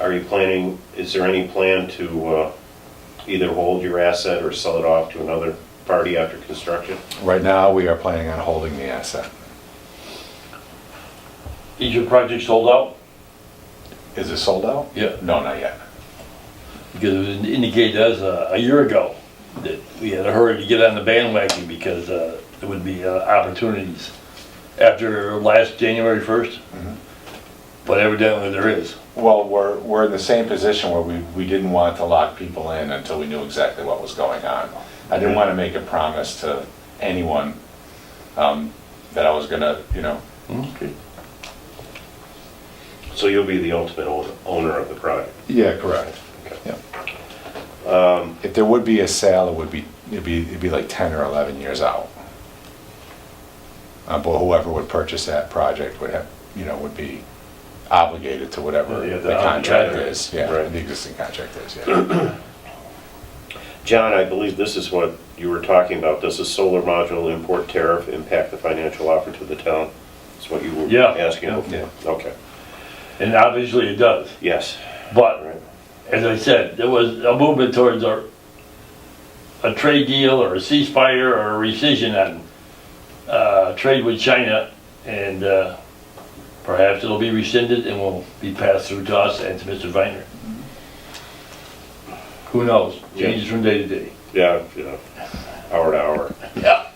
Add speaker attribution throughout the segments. Speaker 1: Are you planning, is there any plan to uh, either hold your asset or sell it off to another party after construction?
Speaker 2: Right now, we are planning on holding the asset.
Speaker 3: Is your project sold out?
Speaker 2: Is it sold out?
Speaker 3: Yeah.
Speaker 2: No, not yet.
Speaker 3: Because it was indicated as a, a year ago that we had a hurry to get on the bandwagon because, uh, there would be uh, opportunities after last January first. But evidently there is.
Speaker 2: Well, we're, we're in the same position where we, we didn't want to lock people in until we knew exactly what was going on. I didn't want to make a promise to anyone um, that I was gonna, you know,
Speaker 3: Okay.
Speaker 1: So you'll be the ultimate own- owner of the project.
Speaker 2: Yeah, correct. Yeah. If there would be a sale, it would be, it'd be, it'd be like 10 or 11 years out. Uh, But whoever would purchase that project would have, you know, would be obligated to whatever
Speaker 3: Yeah,
Speaker 2: the
Speaker 3: the
Speaker 2: contract
Speaker 3: contract.
Speaker 2: is. Yeah,
Speaker 1: Right.
Speaker 2: the existing contract is, yeah.
Speaker 1: John, I believe this is what you were talking about. Does the solar module import tariff impact the financial offer to the town? That's what you were
Speaker 3: Yeah.
Speaker 1: asking
Speaker 2: Yeah.
Speaker 1: before? Okay,
Speaker 3: And obviously it does,
Speaker 1: yes.
Speaker 3: but
Speaker 1: Right.
Speaker 3: as I said, there was a movement towards a, a trade deal or a ceasefire or a rescission on, uh, trade with China, and, uh, perhaps it'll be rescinded and will be passed through to us and to Mr. Viner. Who knows?
Speaker 1: Yeah.
Speaker 3: Changes from day to day.
Speaker 1: Yeah, yeah, hour to hour.
Speaker 3: Yeah.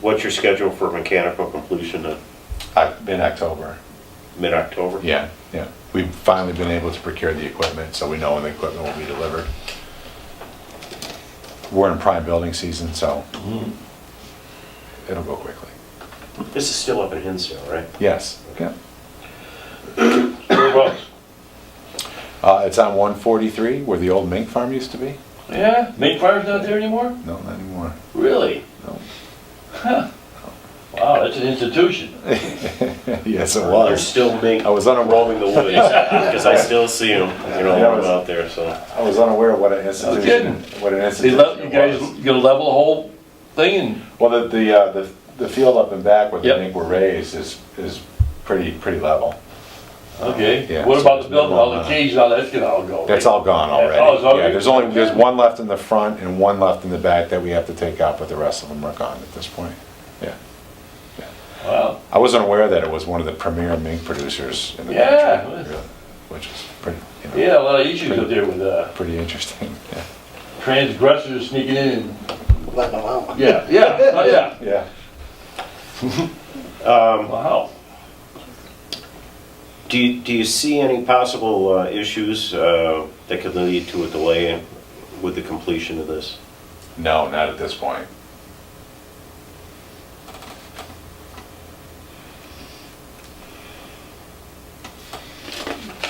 Speaker 1: What's your schedule for mechanical completion in
Speaker 2: Oc- In October,
Speaker 1: mid-October?
Speaker 2: yeah, yeah. We've finally been able to procure the equipment, so we know when the equipment will be delivered. We're in prime building season, so it'll go quickly.
Speaker 1: This is still up in Hinsdale, right?
Speaker 2: Yes, yeah.
Speaker 3: Whereabouts?
Speaker 2: Uh, it's on one forty-three where the old mink farm used to be.
Speaker 3: Yeah, Main Fire's not there anymore?
Speaker 2: No, not anymore.
Speaker 3: Really?
Speaker 2: No.
Speaker 3: Wow, that's an institution.
Speaker 2: yes, it
Speaker 1: They're
Speaker 2: was.
Speaker 1: still being,
Speaker 2: I was unaware.
Speaker 1: roaming the woods, because I still see them, you know,
Speaker 2: That was-
Speaker 1: out there, so.
Speaker 2: I was unaware of what an institution.
Speaker 3: kidding.
Speaker 2: What an
Speaker 3: They
Speaker 2: institution
Speaker 3: let, you
Speaker 2: it
Speaker 3: guys,
Speaker 2: was.
Speaker 3: you gonna level the whole thing
Speaker 2: Well, the the, uh, the the field up and back where
Speaker 3: Yep.
Speaker 2: the mink were raised is is pretty pretty level.
Speaker 3: and, okay,
Speaker 2: Yeah,
Speaker 3: what
Speaker 2: so
Speaker 3: about
Speaker 2: it's
Speaker 3: the building, all the
Speaker 2: normal, uh,
Speaker 3: cages, all that's gonna all go, right?
Speaker 2: That's all gone already.
Speaker 3: Oh, it's all
Speaker 2: yeah,
Speaker 3: good?
Speaker 2: there's only there's one left in the front and one left in the back that we have to take out, but the rest of them are gone at this point. Yeah.
Speaker 3: Wow,
Speaker 2: I wasn't aware that it was one of the premier mink producers in the
Speaker 3: Yeah.
Speaker 2: country, really, which is pretty you know,
Speaker 3: yeah, a lot of issues up there with, uh,
Speaker 2: pretty interesting. Yeah.
Speaker 3: transgressors sneaking in and,
Speaker 4: let them out.
Speaker 3: yeah, yeah, oh, yeah,
Speaker 2: Yeah.
Speaker 3: wow.
Speaker 1: Do you, do you see any possible uh, issues uh, that could lead to a delay in- with the completion of this?
Speaker 2: No, not at this point.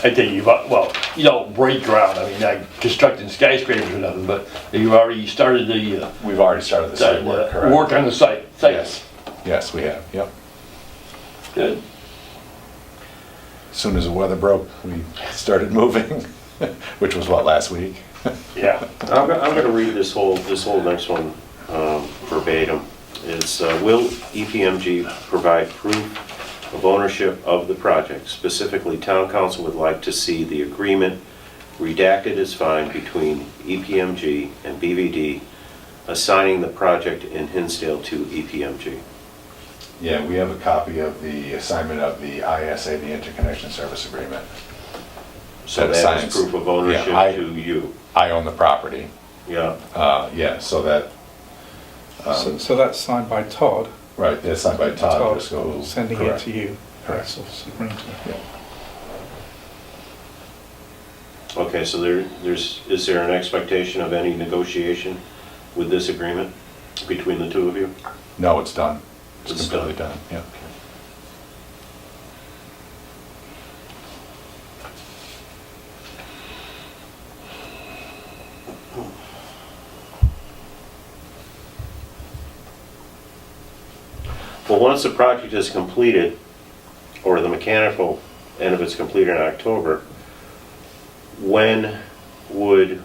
Speaker 3: I think you've, al- well, you don't break ground, I mean, not constructing skyscrapers or nothing, but you've already started the, uh,
Speaker 2: We've already started the site work,
Speaker 3: the
Speaker 2: correct?
Speaker 3: work on the site,
Speaker 2: Yes,
Speaker 3: site,
Speaker 2: yes, we have, yep.
Speaker 3: good.
Speaker 2: As Soon as the weather broke, we started moving, which was what, last week?
Speaker 3: Yeah,
Speaker 1: I'm, go- I'm gonna read this whole, this whole next one um, verbatim. It's, uh, will EPMG provide proof of ownership of the project? Specifically, town council would like to see the agreement redacted as fine between E EPMG and BVD assigning the project in Hinsdale to E EPMG.
Speaker 2: Yeah, we have a copy of the assignment of the ISA, the Interconnection Service Agreement.
Speaker 1: So
Speaker 2: That
Speaker 1: that is
Speaker 2: assigns-
Speaker 1: proof of ownership
Speaker 2: Yeah, I-
Speaker 1: to you.
Speaker 2: I own the property,
Speaker 1: Yeah,
Speaker 2: uh, yeah, so that,
Speaker 5: So, so that's signed by Todd.
Speaker 2: right, that's signed by Um, Todd
Speaker 5: Todd
Speaker 2: Driscoll.
Speaker 5: sending it
Speaker 2: correct.
Speaker 5: to you.
Speaker 2: Correct.
Speaker 5: So, so bring it to-
Speaker 1: okay, so there, there's, is there an expectation of any negotiation with this agreement between the two of you?
Speaker 2: No, it's done. It's
Speaker 1: It's
Speaker 2: completely done, yeah.
Speaker 1: Well, once the project is completed, or the mechanical end of it's completed in October, when would